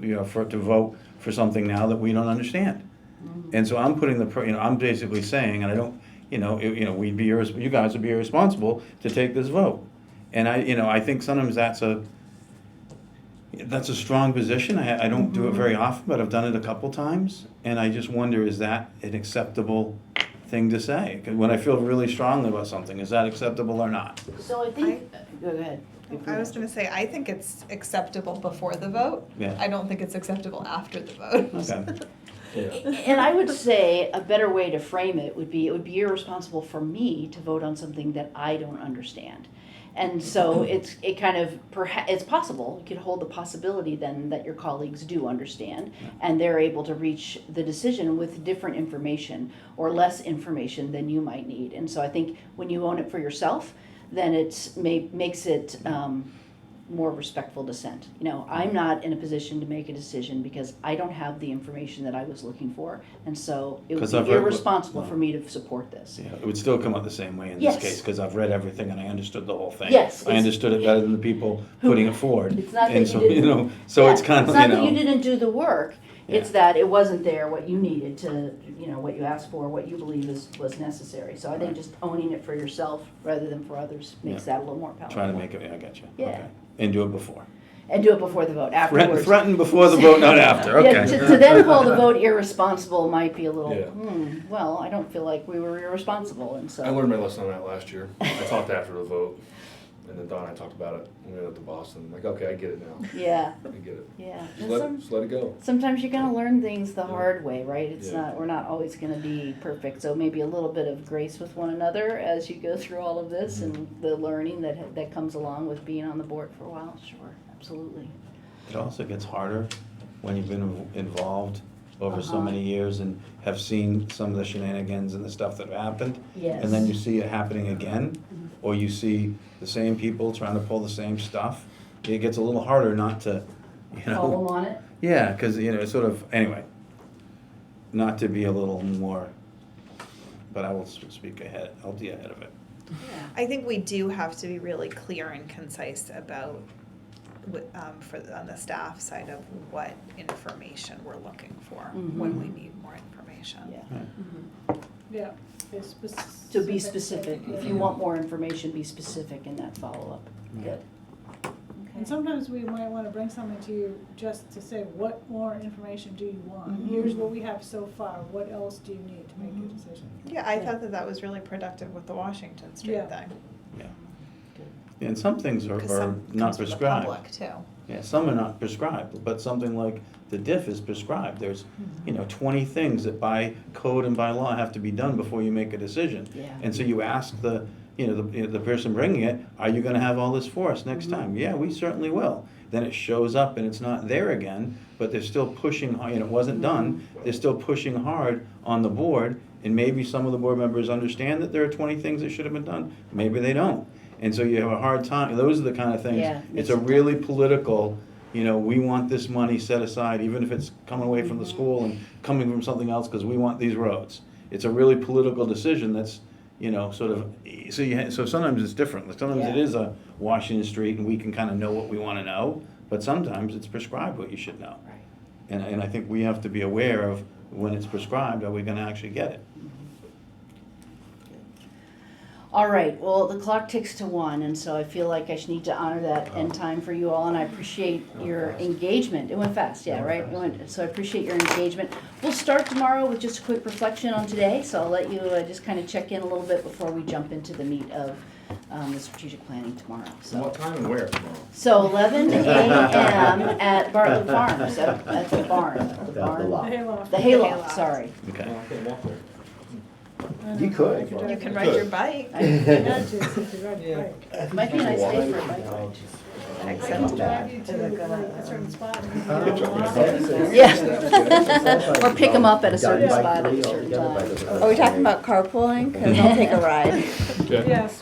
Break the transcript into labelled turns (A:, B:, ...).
A: you know, for, to vote for something now that we don't understand. And so I'm putting the, pr- you know, I'm basically saying, and I don't, you know, it- you know, we'd be, irres- you guys would be irresponsible to take this vote. And I, you know, I think sometimes that's a, that's a strong position. I, I don't do it very often, but I've done it a couple times. And I just wonder, is that an acceptable thing to say? 'Cause When I feel really strongly about something, is that acceptable or not?
B: So I think, go ahead.
C: I was gonna say, I think it's acceptable before the vote.
A: Yeah.
C: I don't think it's acceptable after the vote.
A: Okay.
B: A- And I would say a better way to frame it would be, it would be irresponsible for me to vote on something that I don't understand. And so
C: Mm-hmm.
B: it's, it kind of, perha, it's possible, you could hold the possibility then that your colleagues do understand and they're able to reach the decision with different information or less information than you might need. And so I think when you own it for yourself, then it's, may, makes it,
C: Mm-hmm.
B: um, more respectful dissent. You know,
A: Mm-hmm.
B: I'm not in a position to make a decision because I don't have the information that I was looking for, and so it
A: 'Cause
B: would
A: I've
B: be
A: heard what-
B: irresponsible
A: no.
B: for me to support this.
A: Yeah, it would still come out the same way in this
B: Yes.
A: case, because I've read everything and I understood the whole thing.
B: Yes,
A: I
B: it's-
A: understood it better than the people putting it forward.
B: It's not that
A: And
B: you
A: so,
B: didn't-
A: know, So
B: Yeah,
A: it's kind of,
B: not
A: you
B: that you
A: know,
B: didn't do the work. It's that it wasn't there what you needed to, you know, what you asked for, what you believe is was necessary. So I think
A: Right.
B: just owning it for yourself rather than for others makes that a little more powerful.
A: trying to make it, yeah, I got you.
B: Yeah.
A: Okay. And do it before.
B: and do it before the vote.
A: Threaten,
B: Afterwards,
A: threaten before the vote, not after,
B: Yeah,
A: okay.
B: to, to then call the vote irresponsible might be a little,
D: Yeah.
B: hmm, well, I don't feel like we were irresponsible, and so.
D: I learned my lesson on that last year. I talked after the vote, and then Don and I talked about it. when We went up to Boston. I'm like, okay, I get it now.
B: Yeah,
D: I get it.
B: yeah.
D: Just
B: And
D: let,
B: some-
D: just let it go.
B: Sometimes you're gonna learn things the
D: Yeah.
B: hard way, right? It's
D: Yeah.
B: not, we're not always gonna be perfect, so maybe a little bit of grace with one another as you go through all of this and
D: Mm-hmm.
B: the learning that, that comes along with being on the board for a while, sure, absolutely.
A: It also gets harder when you've been inv- involved over so
B: Uh-huh.
A: many years and have seen some of the shenanigans and the stuff that have happened.
B: Yes. Mm-hmm.
A: And then you see it happening again, or you see the same people trying to pull the same stuff. It gets a little harder not to, you know.
B: Call them on it?
A: Yeah, because you know, it's sort of. Anyway, not to be a little more, but I will s- speak ahead. I'll be ahead of it.
B: Yeah.
C: I think we do have to be really clear and concise about, wh- um, for, on the staff side of what information we're looking for,
E: Mm-hmm.
C: when we need more information.
B: Yeah.
E: Yeah. be
B: So be Mm-hmm. specific, if you want more information, be specific in that follow-up. Good.
E: And sometimes we might wanna bring something to you just to say, what more information do you want?
B: Mhm.
E: Here's what we have so far, what else do you need to make
B: Mm-hmm.
E: your decision?
C: Yeah, I thought that that was really productive with the Washington
E: Yeah.
C: Street thing,
A: Yeah. And some things are,
C: because
A: are
C: some
A: not
C: comes from the
A: prescribed.
C: public too.
A: Yeah, some are not prescribed, but something like the diff is prescribed. There's,
B: Hmm.
A: you know, 20 things that by code and by law have to be done before you make a decision.
B: Yeah.
A: And so you ask the, you know, the, you know, the person bringing it, are you going to have all this for us next time? Yeah, we certainly will. Then it shows up and it's not there again, but they're still pushing, hard- and it wasn't done, they're still pushing hard on the board. And maybe some of the board members understand that there are 20 things that should have been done, maybe they don't. And so you have a hard time, those are the kind of things,
B: Yeah,
A: it's
B: makes
A: a
B: it-
A: really political, you know, we want this money set aside, even if it's coming away from the school and coming from something else, because we want these roads. It's a really political decision that's, you know, sort of, so you, ha- so sometimes it's different, Like, sometimes it
B: Yeah.
A: is a Washington Street and we can kind of know what we want to know, but sometimes it's prescribed what you should know.
B: Right.
A: And, and I think we have to be aware of when it's prescribed, are we gonna actually get it?
B: All right, well, the clock ticks to one, and so I feel like I should need to honor that end time for you all, and I appreciate your engagement. It went fast, yeah, right? Oh, It went, so I appreciate your engagement. We'll start tomorrow with just a quick reflection on today, so I'll let you uh, just kind of check in a little bit before we jump into the meat of um, the strategic planning tomorrow, so.
D: What time and where tomorrow?
B: So eleven AM at Bartlett Farms, at at the barn, the barn,
E: Hayloft.
B: the hayloft, sorry.
A: Okay.
D: No, Oh, I can't walk there.
F: You could, if you
C: You
F: wanted.
C: can
D: You
C: ride your
D: could.
C: bike,
E: Not just if you ride your
D: Yeah.
E: bike.
B: Might be a nice day for a bike ride.
C: I
E: I can
C: accept that.
E: drive you to uh, like a certain spot. and you
F: Oh,
E: can go
F: okay.
E: walk.
B: Yeah. Or pick 'em up at a certain
F: Done by
B: spot at a
F: three
B: certain
F: altogether by
B: time.
F: the-
G: Are we talking about carpooling? Because I'll take a ride.
E: Yes.